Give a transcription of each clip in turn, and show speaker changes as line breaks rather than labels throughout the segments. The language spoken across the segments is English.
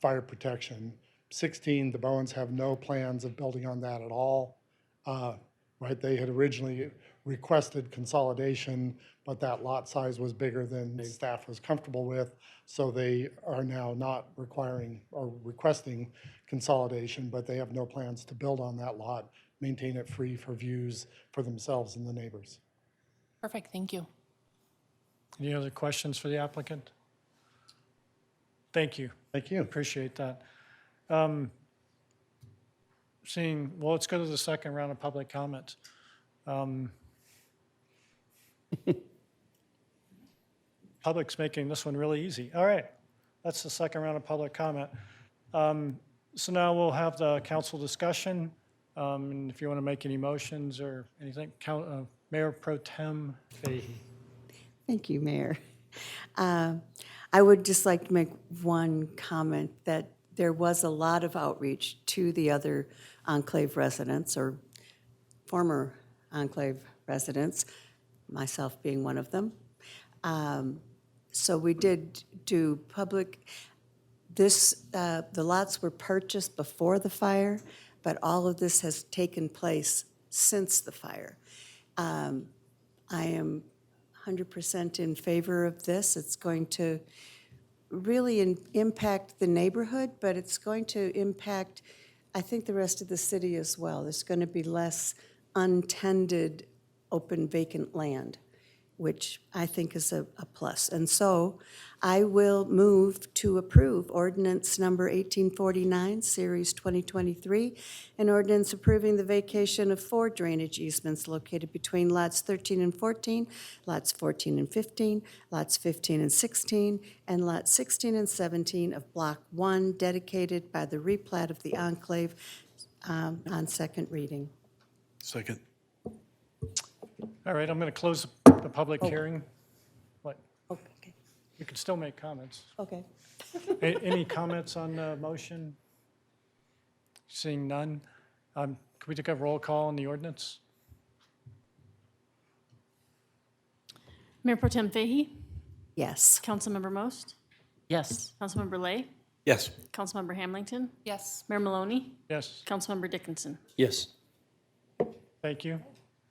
fire protection. 16, the Bowens have no plans of building on that at all. Uh, Right, they had originally requested consolidation, but that lot size was bigger than staff was comfortable with. So they are now not requiring or requesting consolidation, but they have no plans to build on that lot, maintain it free for views for themselves and the neighbors.
Perfect, thank you.
Any other questions for the applicant? Thank you.
Thank you.
Appreciate that. Um, Seeing, well, let's go to the second round of public comments. Um, Public's making this one really easy. All right, that's the second round of public comment. Um, So now we'll have the council discussion. Um, And if you want to make any motions or anything, Coun- uh, Mayor Pro Tem Fahey.
Thank you, Mayor. Um, I would just like to make one comment that there was a lot of outreach to the other enclave residents or former enclave residents, myself being one of them. Um, So we did do public, this, uh, the lots were purchased before the fire, but all of this has taken place since the fire. Um, I am 100% in favor of this. It's going to really in- impact the neighborhood, but it's going to impact, I think, the rest of the city as well. There's going to be less untended, open vacant land, which I think is a a plus. And so I will move to approve ordinance number 1849, Series 2023, an ordinance approving the vacation of four drainage easements located between lots 13 and 14, lots 14 and 15, lots 15 and 16, and lots 16 and 17 of Block 1 dedicated by the replat of the enclave um, on second reading.
Second.
All right, I'm going to close the the public hearing. What?
Okay,
You can still make comments.
okay.
A- Any comments on the motion? Seeing none, um, can we take a roll call on the ordinance?
Mayor Pro Tem Fahey,
Yes.
Councilmember Most,
Yes.
Councilmember Lay,
Yes.
Councilmember Hamilton,
Yes.
Mayor Maloney,
Yes,
Councilmember Dickinson.
Yes.
thank you.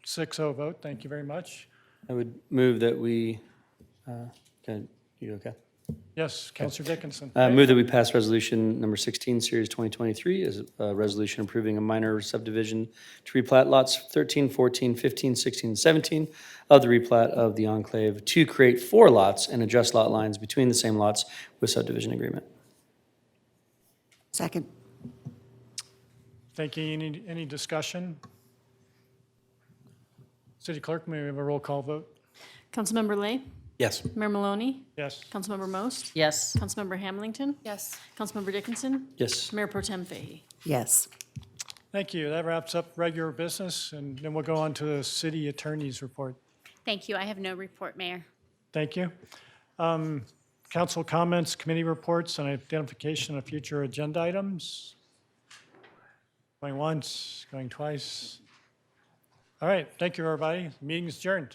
Six oh vote, thank you very much.
I would move that we, uh, can, you okay?
Yes, Counselor Dickinson.
Uh, move that we pass resolution number 16, series 2023, is a resolution approving a minor subdivision to replat lots 13, 14, 15, 16, and 17 of the replat of the enclave to create four lots and adjust lot lines between the same lots with subdivision agreement.
Second.
Thank you. Any, any discussion? City Clerk, may we have a roll call vote?
Councilmember Lay,
Yes.
Mayor Maloney,
Yes,
Councilmember Most,
Yes.
Councilmember Hamilton,
Yes.
Councilmember Dickinson,
Yes.
Mayor Pro Tem Fahey.
Yes.
thank you. That wraps up regular business, and then we'll go on to the city attorney's report.
Thank you. I have no report, Mayor.
Thank you. Um, Council comments, committee reports, and identification of future agenda items. Going once, going twice. All right, thank you, everybody. Meeting's adjourned.